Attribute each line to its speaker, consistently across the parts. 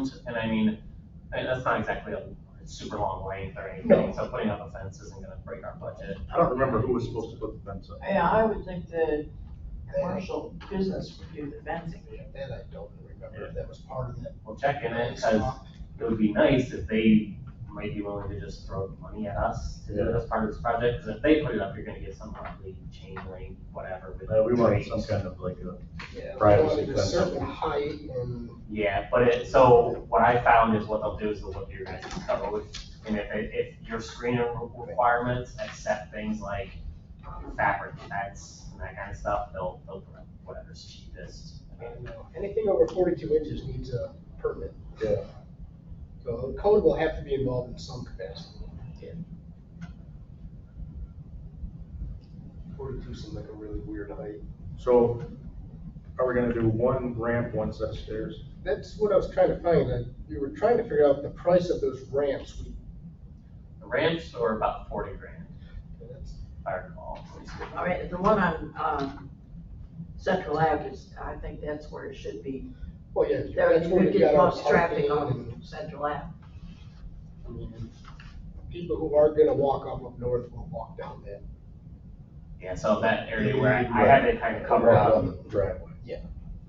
Speaker 1: assumed, and I mean, I- that's not exactly a super long length or anything, so putting up a fence isn't gonna break our budget.
Speaker 2: I don't remember who was supposed to put the fence up.
Speaker 3: Yeah, I would think the commercial business would do the fencing.
Speaker 4: That I don't remember, if that was part of that.
Speaker 1: We'll check in it, because it would be nice if they might be willing to just throw money at us to do this part of this project, because if they put it up, you're gonna get some lovely chain link, whatever. with
Speaker 2: Uh, we wanted
Speaker 1: trees.
Speaker 2: some kind of like a,
Speaker 4: Yeah,
Speaker 2: Privacy
Speaker 4: wanted a
Speaker 2: fence.
Speaker 4: certain height and.
Speaker 1: Yeah, but it, so what I found is what they'll do is they'll look at your guys' code, and if, it- if your screener requirements accept things like um, fabric fence and that kind of stuff, they'll, they'll put up whatever's cheapest.
Speaker 4: I don't know. uh, Anything over forty-two inches needs a permit.
Speaker 2: yeah,
Speaker 4: So the code will have to be involved in some capacity. Forty-two seems like a really weird height.
Speaker 2: so are we gonna do one ramp, one set of stairs?
Speaker 4: That's what I was trying to find, that we were trying to figure out the price of those ramps. We-
Speaker 1: The ramps were about forty grand,
Speaker 4: that's-
Speaker 1: if I recall.
Speaker 3: I mean, the one on, um, Central Ave is, I think that's where it should be.
Speaker 4: Well, yeah.
Speaker 3: There,
Speaker 4: that's
Speaker 3: you
Speaker 4: where
Speaker 3: would
Speaker 4: we
Speaker 3: get
Speaker 4: got our
Speaker 3: most traffic
Speaker 4: parking
Speaker 3: on Central Ave.
Speaker 4: and People who are gonna walk up up north will walk down that.
Speaker 1: Yeah, so that area where I I had it kind of covered up,
Speaker 2: um, Driveway.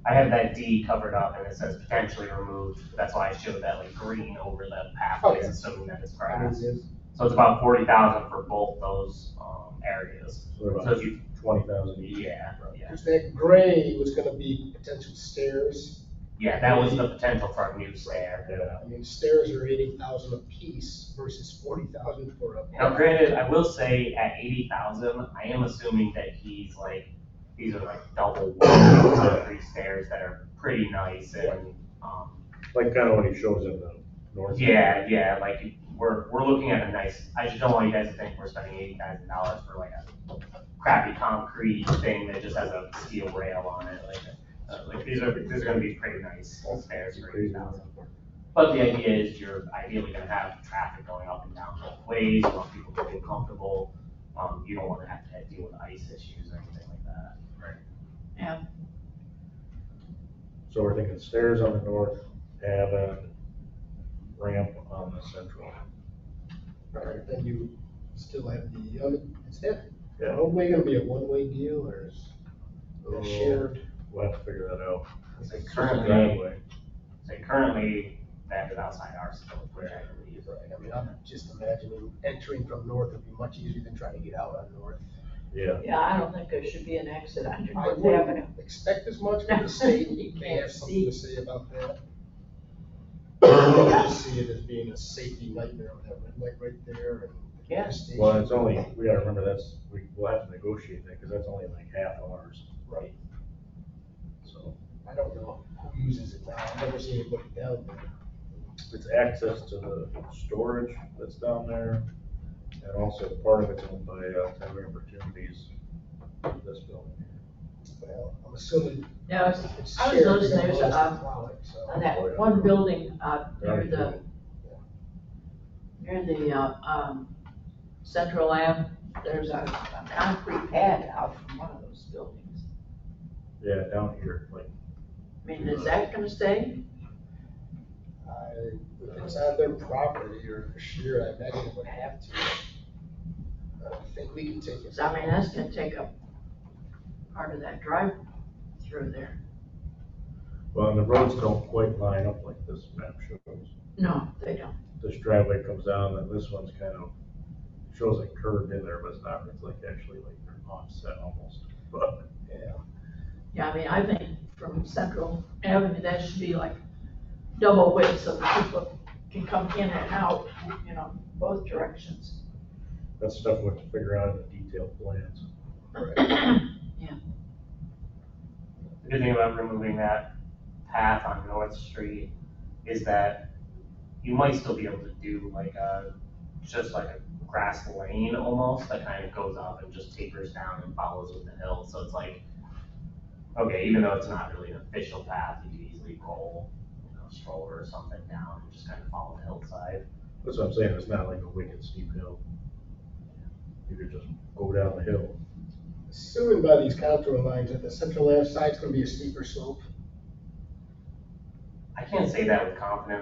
Speaker 1: I had that D covered up and it says potentially removed, that's why I showed that like green over the pathways,
Speaker 4: Okay.
Speaker 1: assuming that it's
Speaker 4: I mean,
Speaker 1: grass.
Speaker 4: it's-
Speaker 1: So it's about forty thousand for both those, um, areas.
Speaker 2: So
Speaker 1: So
Speaker 2: about
Speaker 1: if you,
Speaker 2: twenty thousand each.
Speaker 1: yeah, yeah,
Speaker 4: Because that gray was gonna be potential stairs.
Speaker 1: yeah, that was the potential for a new stair. uh,
Speaker 2: Yeah,
Speaker 4: I mean, stairs are eighty thousand apiece versus forty thousand for a.
Speaker 1: Now granted, I will say at eighty thousand, I am assuming that he's like, these are like double wall concrete stairs that are pretty nice and, um,
Speaker 2: like kinda what he shows in the north.
Speaker 1: Yeah, yeah, like, we're, we're looking at a nice, I just don't want you guys to think we're spending eighty thousand dollars for like a crappy concrete thing that just has a steel rail on it, like, uh, like, these are, these are gonna be pretty nice stairs for eighty thousand. But the idea is you're ideally gonna have traffic going up and down both ways, you want people to feel comfortable, um, you don't wanna have to deal with ice issues or anything like that.
Speaker 2: So we're thinking stairs on the north, have a ramp on the central.
Speaker 4: Right, then you still have the, other- is that
Speaker 2: Yeah.
Speaker 4: roadway gonna be a one-way deal or is
Speaker 2: Oh.
Speaker 4: it shared?
Speaker 2: We'll have to figure that out.
Speaker 1: So currently,
Speaker 2: Driveway.
Speaker 1: so currently, that is outside our scope, which I believe.
Speaker 4: Right, I mean, I'm just imagining entering from north would be much easier than trying to get out on north.
Speaker 2: Yeah,
Speaker 3: Yeah, I don't think there should be an exit on
Speaker 4: I
Speaker 3: North Avenue.
Speaker 4: wouldn't expect as much from the state,
Speaker 3: You
Speaker 4: they
Speaker 3: can't
Speaker 4: have something
Speaker 3: see.
Speaker 4: to say about that. I just see it as being a safety nightmare with that red light right there and. the gas station.
Speaker 2: well, it's only, we gotta remember that's, we, we'll have to negotiate that, cause that's only like half ours,
Speaker 4: Right,
Speaker 2: so.
Speaker 4: I don't know who uses it now, I've never seen it put down there.
Speaker 2: It's access to the storage that's down there, and also part of it's owned by, uh, Tyler Opportunities, this building.
Speaker 4: Well, I'm assuming
Speaker 3: Now, it's
Speaker 4: it's
Speaker 3: I was
Speaker 4: shared,
Speaker 3: noticing
Speaker 4: they're
Speaker 3: there's
Speaker 4: gonna
Speaker 3: a,
Speaker 4: allow us to plow
Speaker 3: um,
Speaker 4: it, so.
Speaker 3: on that one building, uh, near the, near the, uh, um, Central Ave, there's a, a concrete pad out from one of those buildings.
Speaker 2: Yeah, down here, like,
Speaker 3: I mean, is that gonna stay?
Speaker 4: I- If it's on their property or shared, I imagine it would have to. I don't think we can take it.
Speaker 3: Cause I mean, that's gonna take up part of that drive through there.
Speaker 2: well, and the roads don't quite line up like this map shows.
Speaker 3: No, they don't.
Speaker 2: This driveway comes down, and this one's kind of, shows it curved in there, but it's not, it's like actually like offset almost, but.
Speaker 4: Yeah,
Speaker 3: Yeah, I mean, I think from Central Avenue, that should be like double width so that people can come in and out, you know, both directions.
Speaker 2: That's stuff we have to figure out in the detailed plans.
Speaker 1: The good thing about removing that path on North Street is that you might still be able to do like a, just like a grass lane almost that kind of goes up and just tapers down and follows with the hill. So it's like, okay, even though it's not really an official path, you could easily roll, you know, stroller or something down and just kind of follow the hillside.
Speaker 2: That's what I'm saying, it's not like a wicked steep hill. You could just go down the hill.
Speaker 4: assuming by these contour lines that the central left side's gonna be a steeper slope.
Speaker 1: I can't say that with confidence